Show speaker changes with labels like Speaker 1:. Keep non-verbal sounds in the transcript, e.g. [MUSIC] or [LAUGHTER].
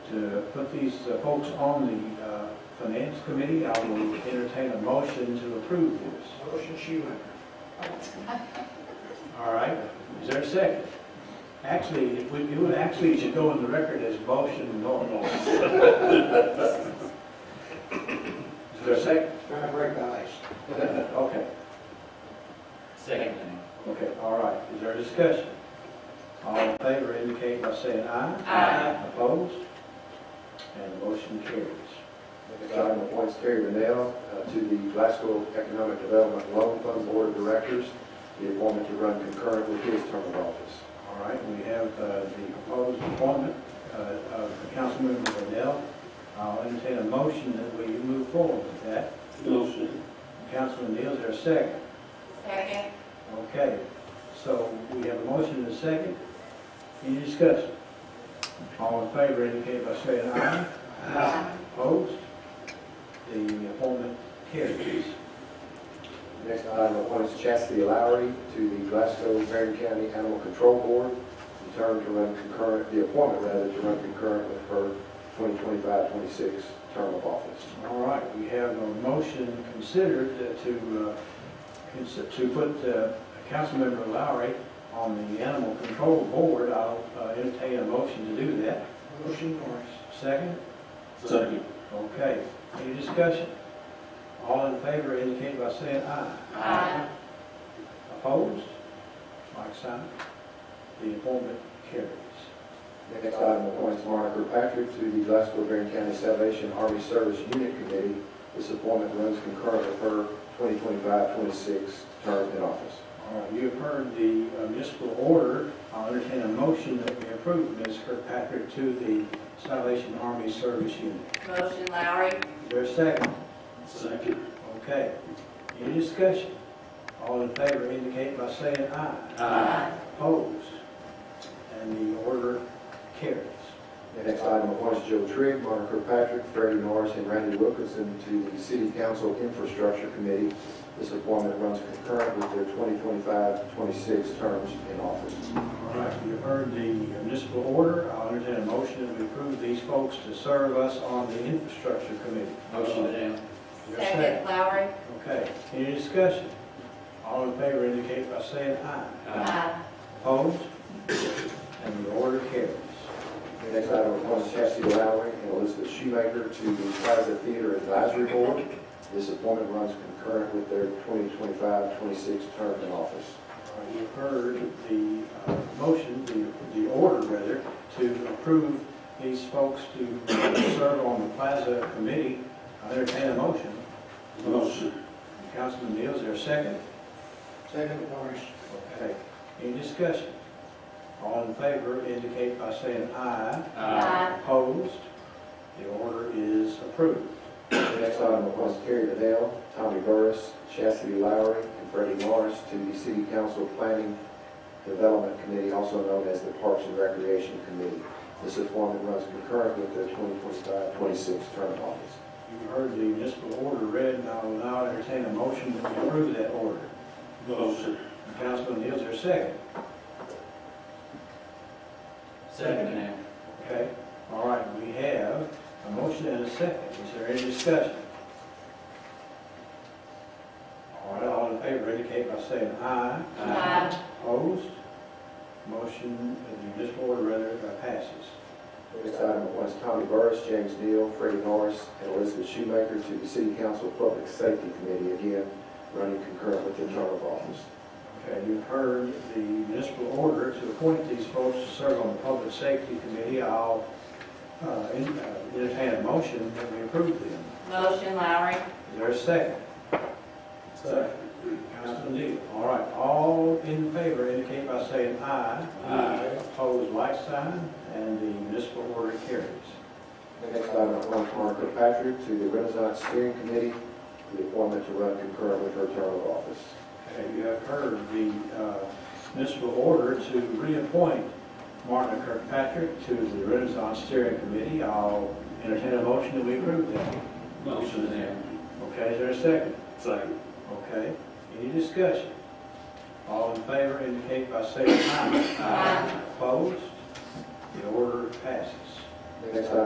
Speaker 1: to put these uh, folks on the uh, finance committee, I will entertain a motion to approve this.
Speaker 2: Motion Schumacher.
Speaker 1: All right, is there a second? Actually, it would, it would actually should go in the record as motion normal. [LAUGHS] Is there a second?
Speaker 2: Trying to break the ice.
Speaker 1: Okay,
Speaker 3: Second.
Speaker 1: okay, all right, is there a discussion? All in favor indicate by saying aye.
Speaker 3: Aye.
Speaker 1: Opposed? And the motion carries.
Speaker 4: Next item appoints Terry Rennell uh, to the Glasgow Economic Development Loan Fund Board of Directors. The appointment to run concurrent with his term of office.
Speaker 1: All right, we have uh, the proposed appointment uh, of Councilmember Liddell. I'll entertain a motion that we move forward with that.
Speaker 5: Motion.
Speaker 1: Councilman Neal, is there a second?
Speaker 3: Second.
Speaker 1: Okay, so we have a motion and a second. Any discussion? All in favor indicate by saying aye. Opposed? The appointment carries.
Speaker 4: Next item appoints Chastity Lowry to the Glasgow Marion County Animal Control Board. The term to run concurrent, the appointment rather, to run concurrent with her 2025-26 term of office.
Speaker 1: All right, we have a motion considered uh, to, uh, consi- to put uh, Councilmember Lowry on the Animal Control Board. I'll uh, entertain a motion to do that.
Speaker 2: Motion Morris.
Speaker 1: Second?
Speaker 5: Second.
Speaker 1: Okay, any discussion? All in favor indicate by saying aye.
Speaker 3: Aye.
Speaker 1: Opposed? Like sign. The appointment carries.
Speaker 4: Next item appoints Monica Patrick to the Glasgow Marion County Salvation Army Service Unit Committee. This appointment runs concurrent with her 2025-26 term in office.
Speaker 1: All right, you have heard the uh, municipal order. I'll entertain a motion that we approve Ms. Kirkpatrick to the Salvation Army Service Unit.
Speaker 3: Motion Lowry.
Speaker 1: Is there a second?
Speaker 5: Second.
Speaker 1: Okay. Any discussion? All in favor indicate by saying aye.
Speaker 3: Uh,
Speaker 1: Opposed? And the order carries.
Speaker 4: Next item appoints Joe Trigg, Monica Patrick, Freddie Norris, and Randy Wilkinson to the City Council Infrastructure Committee. This appointment runs concurrent with their 2025-26 terms in office.
Speaker 1: All right, you have heard the municipal order. I'll entertain a motion that we approve these folks to serve us on the infrastructure committee.
Speaker 3: Motion
Speaker 5: down.
Speaker 1: Is there a
Speaker 3: Second Lowry.
Speaker 1: Okay, any discussion? All in favor indicate by saying aye.
Speaker 3: Aye.
Speaker 1: Opposed? And the order carries.
Speaker 4: Next item appoints Chastity Lowry and Elizabeth Shoemaker to the Plaza Theater Advisory Board. This appointment runs concurrent with their 2025-26 term in office.
Speaker 1: Uh, You've heard the uh, motion, the, the order rather, to approve these folks to serve on the Plaza Committee. I entertain a motion.
Speaker 5: Motion.
Speaker 1: Councilman Neal, is there a second?
Speaker 2: Second Morris.
Speaker 1: Okay, any discussion? All in favor indicate by saying aye.
Speaker 3: Uh, Aye.
Speaker 1: Opposed? The order is approved.
Speaker 4: Next item appoints Terry Liddell, Tommy Burris, Chastity Lowry, and Freddie Morris to the City Council Planning Development Committee, also known as the Parks and Recreation Committee. This appointment runs concurrent with their 2025-26 term of office.
Speaker 1: You've heard the municipal order read, and I will now entertain a motion to approve that order.
Speaker 5: Motion.
Speaker 1: Councilman Neal, is there a second?
Speaker 3: Second now.
Speaker 1: Okay, all right, we have a motion and a second. Is there any discussion? All right, all in favor indicate by saying aye.
Speaker 3: Aye.
Speaker 1: Opposed? Motion, the municipal order rather uh, passes.
Speaker 4: Next item appoints Tommy Burris, James Neal, Freddie Norris, and Elizabeth Shoemaker to the City Council Public Safety Committee, again, running concurrent with their term of office.
Speaker 1: Okay, Uh, you've heard the municipal order to appoint these folks to serve on the Public Safety Committee. I'll uh, en- uh, entertain a motion that we approve them.
Speaker 3: Motion Lowry.
Speaker 1: Is there a second? Second. Councilman Neal, all right, all in favor indicate by saying aye.
Speaker 5: Aye.
Speaker 1: Opposed, like sign, and the municipal order carries.
Speaker 4: Next item appoints Martha Patrick to the Renaissance Steering Committee, the appointment to run concurrent with her term of office.
Speaker 1: Okay, you have heard the uh, municipal order to reappoint Martin Kirkpatrick to the Renaissance Steering Committee. I'll entertain a motion that we approve that.
Speaker 5: Motion down.
Speaker 1: Okay, is there a second?
Speaker 5: Second.
Speaker 1: Okay, any discussion? All in favor indicate by saying aye.
Speaker 3: Aye.
Speaker 1: Opposed? The order passes.
Speaker 4: Next item